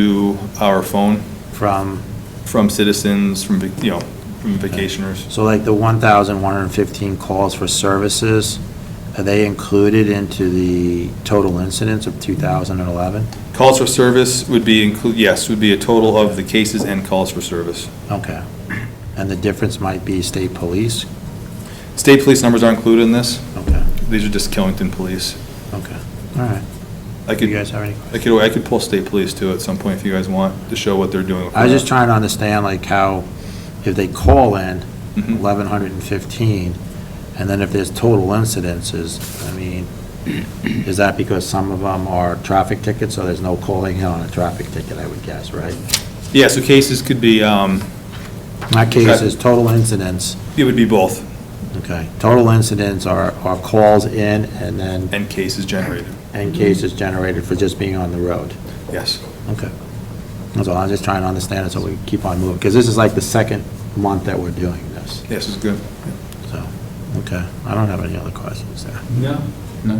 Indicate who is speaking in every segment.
Speaker 1: to our phone
Speaker 2: from,
Speaker 1: from citizens, from, vac- you know, from vacationers.
Speaker 2: so like the 1,115 calls for services, are they included into the total incidents of 2011?
Speaker 1: Calls for service would be include, yes, would be a total of the cases and calls for service.
Speaker 2: Okay. And the difference might be state police?
Speaker 1: State police numbers are included in this.
Speaker 2: Okay,
Speaker 1: These are just Killington police.
Speaker 2: okay, all right.
Speaker 1: I
Speaker 2: Do
Speaker 1: could,
Speaker 2: you guys have any?
Speaker 1: I could, I could pull state police too at some point if you guys want to show what they're doing.
Speaker 2: I was just trying to understand like how, if they call in
Speaker 1: Mhm.
Speaker 2: 1,115, and then if there's total incidences, I mean, is that because some of them are traffic tickets, so there's no calling on a traffic ticket, I would guess, right?
Speaker 1: Yeah, so cases could be, um,
Speaker 2: My case is total incidents,
Speaker 1: it would be both,
Speaker 2: okay. Total incidents are, are calls in and then,
Speaker 1: and cases generated,
Speaker 2: and cases generated for just being on the road.
Speaker 1: yes.
Speaker 2: Okay. That's all, I'm just trying to understand it so we keep on moving, because this is like the second month that we're doing this,
Speaker 1: Yes is good.
Speaker 2: so, okay. I don't have any other questions there,
Speaker 3: No. No.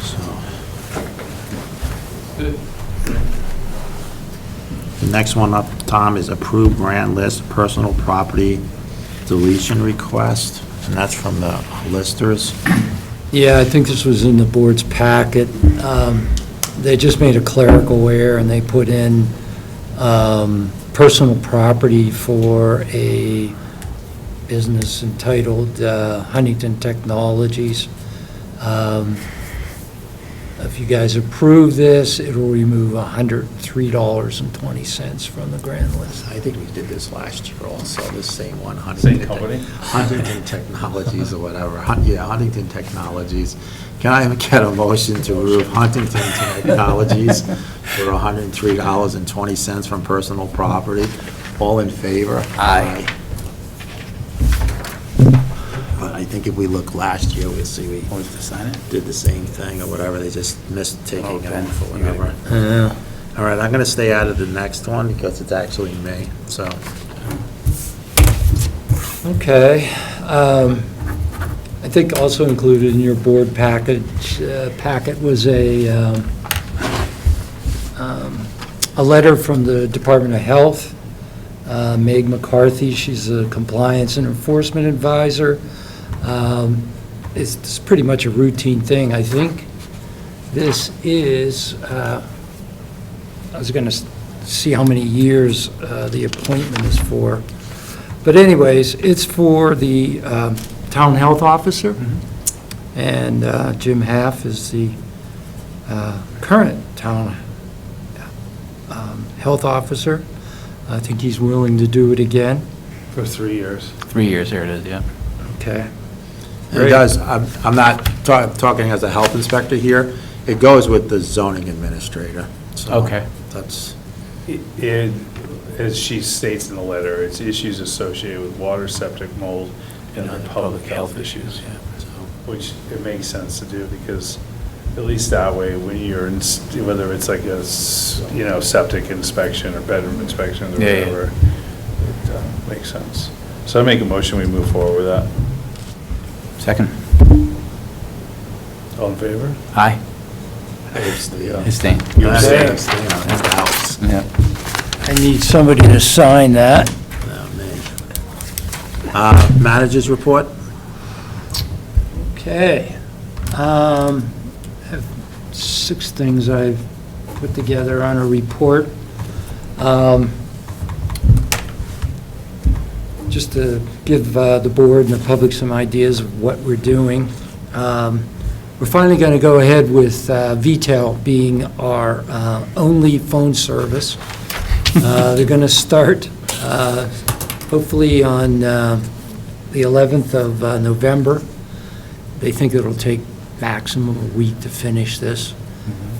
Speaker 2: so. The next one up, Tom, is approved grant list, personal property deletion request, and that's from the listers.
Speaker 4: Yeah, I think this was in the board's packet. Um, They just made a clerical error, and they put in um, personal property for a business entitled uh, Huntington Technologies. Um, If you guys approve this, it will remove $103.20 from the grant list.
Speaker 2: I think we did this last year also, this same one, Huntington.
Speaker 3: Same company?
Speaker 2: Huntington Technologies or whatever, Hun- yeah, Huntington Technologies. Can I get a motion to remove Huntington Technologies for $103.20 from personal property? All in favor? Aye. But I think if we look last year, we'll see, Oh, we did the same thing or whatever, they just missed taking it off or whatever.
Speaker 4: Yeah.
Speaker 2: All right, I'm going to stay out of the next one because it's actually me, so.
Speaker 4: Okay. um, I think also included in your board package, uh, packet was a, um, um, a letter from the Department of Health. Uh, Meg McCarthy, she's a compliance and enforcement advisor. Um, It's it's pretty much a routine thing, I think. This is, uh, I was going to see how many years uh, the appointment is for. But anyways, it's for the um, town health officer, and uh, Jim Half is the uh, current town um, health officer. I think he's willing to do it again,
Speaker 3: For three years.
Speaker 5: Three years, here it is, yeah.
Speaker 4: okay?
Speaker 2: It
Speaker 4: Great.
Speaker 2: does, I'm I'm not ta- talking as a health inspector here, it goes with the zoning administrator, so.
Speaker 5: Okay.
Speaker 2: That's,
Speaker 3: It, as she states in the letter, it's issues associated with water, septic, mold, and other public health issues,
Speaker 2: so,
Speaker 3: which it makes sense to do because at least that way, when you're, in s- whether it's like a, s- you know, septic inspection or bedroom inspection or
Speaker 5: Yeah, yeah.
Speaker 3: whatever, it uh, makes sense. So I make a motion, we move forward with that.
Speaker 5: Second.
Speaker 3: All in favor?
Speaker 5: Aye.
Speaker 2: I abstain.
Speaker 5: Abstain.
Speaker 3: uh, You
Speaker 2: I
Speaker 3: abstain.
Speaker 2: abstain on the uh, house,
Speaker 5: Yeah.
Speaker 4: I need somebody to sign that.
Speaker 2: not me. Uh, Managers report?
Speaker 4: Okay. Um, I have Six things I've put together on a report. Um, Just to give uh, the board and the public some ideas of what we're doing. Um, We're finally going to go ahead with uh, VTEL being our uh, only phone service. Uh, They're going to start uh, hopefully on uh, the 11th of uh, November. They think it'll take maximum a week to finish this.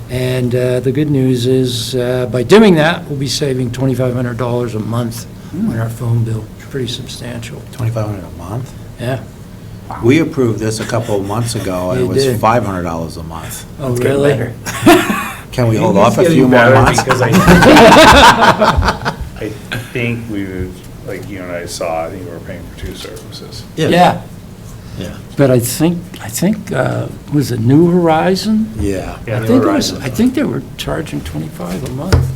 Speaker 4: And uh, the good news is, uh, by doing that, we'll be saving $2,500 a month on our phone bill. It's Pretty substantial,
Speaker 2: 2,500 a month?
Speaker 4: yeah.
Speaker 2: We approved this a couple of months ago, and it
Speaker 4: You
Speaker 2: was
Speaker 4: did.
Speaker 2: $500 a month.
Speaker 4: Oh, really?
Speaker 2: Can we hold
Speaker 3: It's
Speaker 2: off a
Speaker 3: getting
Speaker 2: few more
Speaker 3: better
Speaker 2: months?
Speaker 3: Because I, I think we, were- like you and I saw, I think we were paying for two services.
Speaker 4: Yeah.
Speaker 2: Yeah.
Speaker 4: But I think, I think, uh, was it New Horizon?
Speaker 2: Yeah.
Speaker 4: I think it was. I think they were charging 25 a month.